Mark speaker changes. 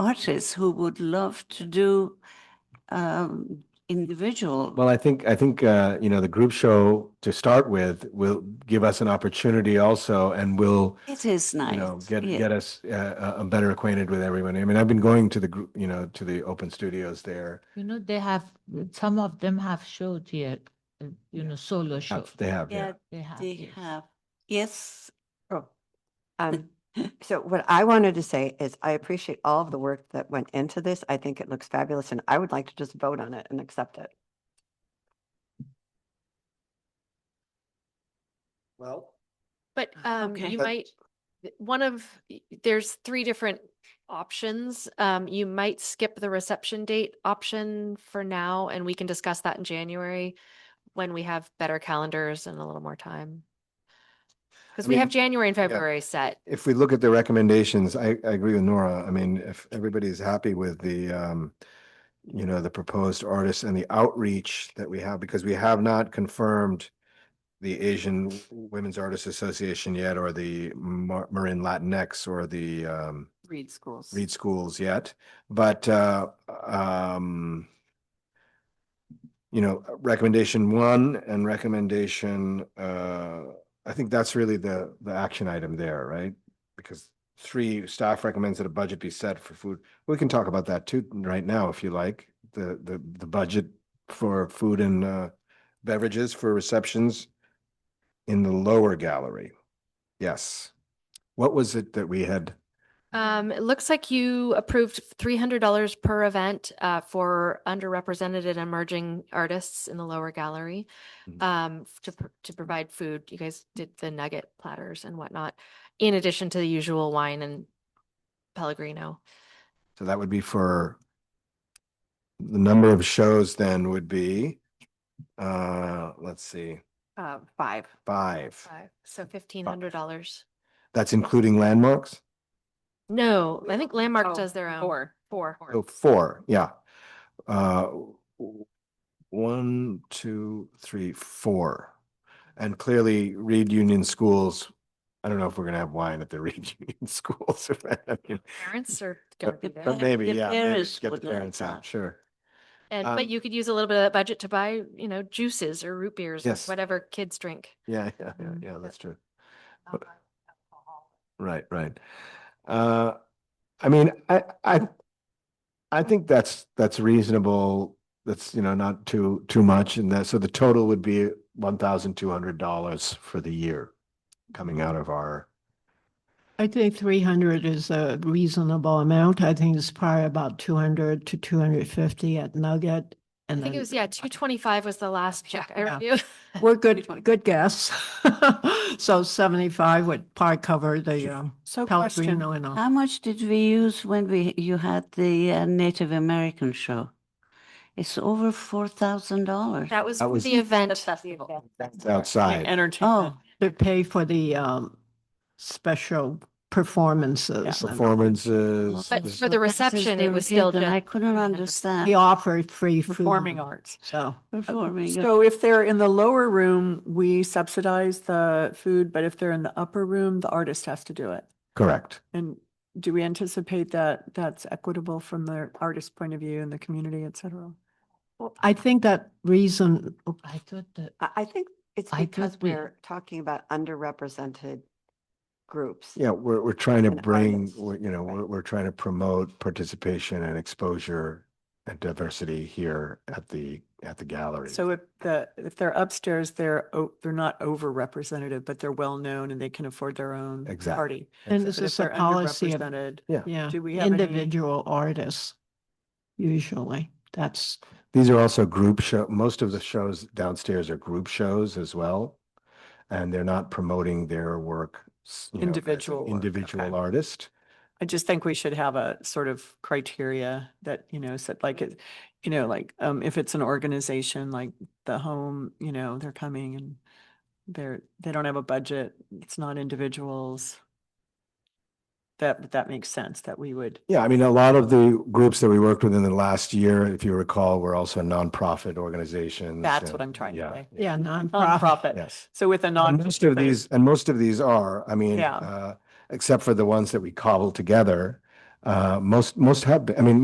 Speaker 1: artists who would love to do um, individual.
Speaker 2: Well, I think, I think, uh, you know, the group show to start with will give us an opportunity also and will,
Speaker 1: It is nice.
Speaker 2: you know, get,
Speaker 1: yeah.
Speaker 2: get us, uh, uh, uh, better acquainted with everyone. I mean, I've been going to the, gr- you know, to the open studios there.
Speaker 3: You know, they have, some of them have showed here, uh, you know, solo show.
Speaker 2: Have- They have, yeah.
Speaker 1: Yeah,
Speaker 3: They have.
Speaker 1: they
Speaker 3: yes.
Speaker 1: have, yes.
Speaker 4: Um, so what I wanted to say is I appreciate all of the work that went into this. I think it looks fabulous and I would like to just vote on it and accept it.
Speaker 2: Well.
Speaker 5: But um,
Speaker 1: Okay.
Speaker 2: Ah,
Speaker 5: you
Speaker 2: But-
Speaker 5: might, th- one of, y- there's three different options. Um, you might skip the reception date option for now, and we can discuss that in January when we have better calendars and a little more time. Because
Speaker 2: I
Speaker 5: we
Speaker 2: mean,
Speaker 5: have January and February set.
Speaker 2: If we look at the recommendations, I, I agree with Nora. I mean, if everybody's happy with the, um, you know, the proposed artists and the outreach that we have, because we have not confirmed the Asian Women's Artists Association yet, or the Mar- Marin Latinx, or the, um,
Speaker 1: Read schools.
Speaker 2: Reed schools yet, but, uh, um, you know, recommendation one and recommendation, uh, I think that's really the, the action item there, right? Because three, staff recommends that a budget be set for food. We can talk about that too right now if you like, the, the, the budget for food and, uh, beverages for receptions in the lower gallery. Yes. What was it that we had?
Speaker 5: Um, it looks like you approved three hundred dollars per event uh, for underrepresented and emerging artists in the lower gallery.
Speaker 2: Mhm.
Speaker 5: Um, f- to pr- to provide food, you guys did the nugget platters and whatnot, in addition to the usual wine and Pellegrino.
Speaker 2: So that would be for the number of shows then would be, uh, let's see,
Speaker 1: Uh, five.
Speaker 2: five.
Speaker 5: Five. So fifteen hundred dollars.
Speaker 2: That's including landmarks?
Speaker 5: No, I think
Speaker 1: Oh,
Speaker 5: Landmark does their own.
Speaker 1: four.
Speaker 5: Four.
Speaker 2: Oh, four, yeah. Uh, w- one, two, three, four. And clearly Reed Union Schools, I don't know if we're gonna have wine at the Reed Union Schools. I mean,
Speaker 5: Parents are gonna be there.
Speaker 2: But maybe,
Speaker 1: The
Speaker 2: yeah, maybe
Speaker 1: parents
Speaker 2: get the
Speaker 1: would like
Speaker 2: parents
Speaker 1: that.
Speaker 2: out, sure.
Speaker 5: And,
Speaker 2: um,
Speaker 5: but you could use a little bit of that budget to buy, you know, juices or root beers, or
Speaker 2: Yes.
Speaker 5: whatever kids drink.
Speaker 2: Yeah, yeah, yeah,
Speaker 5: Mhm.
Speaker 2: yeah, that's true.
Speaker 3: Not
Speaker 2: Right, right. Uh, I mean, I, I, I think that's, that's reasonable. That's, you know, not too, too much. And that, so the total would be one thousand two hundred dollars for the year coming out of our,
Speaker 6: I think three hundred is a reasonable amount. I think it's probably about two hundred to two hundred fifty at Nugget.
Speaker 5: I
Speaker 6: And
Speaker 5: think it
Speaker 6: then
Speaker 5: was, yeah, two twenty-five was the last check I
Speaker 6: Yeah.
Speaker 5: knew.
Speaker 6: We're good, good guess. So seventy-five would probably cover the um,
Speaker 1: So question, Um,
Speaker 6: Pellegrino and all.
Speaker 1: how much did we use when we, you had the uh, Native American show? It's over four thousand dollars.
Speaker 5: That was
Speaker 2: That was-
Speaker 5: the event.
Speaker 2: It's
Speaker 7: eh,
Speaker 2: outside.
Speaker 1: Oh,
Speaker 6: They pay for the um, special performances. and-
Speaker 2: Performances.
Speaker 5: But
Speaker 2: this-
Speaker 5: for the reception, it was still
Speaker 1: And I
Speaker 5: just,
Speaker 1: couldn't
Speaker 5: $350.
Speaker 6: They
Speaker 1: understand.
Speaker 6: offer free food.
Speaker 7: Performing arts.
Speaker 6: So.
Speaker 1: Performing. uh,
Speaker 7: So if they're in the lower room, we subsidize the food, but if they're in the upper room, the artist has to do it.
Speaker 2: Correct.
Speaker 7: And do we anticipate that that's equitable from the artist's point of view and the community, et cetera?
Speaker 6: I think that reason,
Speaker 3: I thought that,
Speaker 4: I, I think it's
Speaker 3: I think
Speaker 4: because
Speaker 3: we-
Speaker 4: we're talking about underrepresented groups.
Speaker 2: Yeah, we're, we're trying to
Speaker 4: And
Speaker 2: bring,
Speaker 4: artists,
Speaker 2: we're, you know,
Speaker 4: right.
Speaker 2: we're, we're trying to promote participation and exposure and diversity here at the, at the gallery.
Speaker 7: So if the, if they're upstairs, they're, o- they're not overrepresented, but they're well-known and they can afford their own
Speaker 2: Exactly.
Speaker 7: party.
Speaker 6: and
Speaker 7: But
Speaker 6: this
Speaker 7: if
Speaker 6: is a
Speaker 7: they're
Speaker 6: policy of
Speaker 7: underrepresented,
Speaker 6: Yeah,
Speaker 7: Do we have any-
Speaker 6: individual artists, usually. That's,
Speaker 2: These are also group show, most of the shows downstairs are group shows as well. And they're not promoting their work. s- you know, as an
Speaker 7: Individual work,
Speaker 2: Individual
Speaker 7: okay.
Speaker 2: artist.
Speaker 7: I just think we should have a sort of criteria that, you know, said like, it, you know, like, um, if it's an organization like the home, you know, they're coming and they're, they don't have a budget, it's not individuals. That, that makes sense that we would,
Speaker 2: Yeah, I mean, a lot of the groups that we worked with in the last year, if you recall, were also nonprofit organizations.
Speaker 7: that's what
Speaker 2: and-
Speaker 7: I'm trying to
Speaker 2: yeah,
Speaker 7: say.
Speaker 6: yeah, nonprofit.
Speaker 7: Nonprofit.
Speaker 2: Yes.
Speaker 7: So with a non.
Speaker 2: And most of these, and most of these are, I mean,
Speaker 7: Yeah.
Speaker 2: uh, except for the ones that we cobbled together, Uh, most, most have, been- I mean,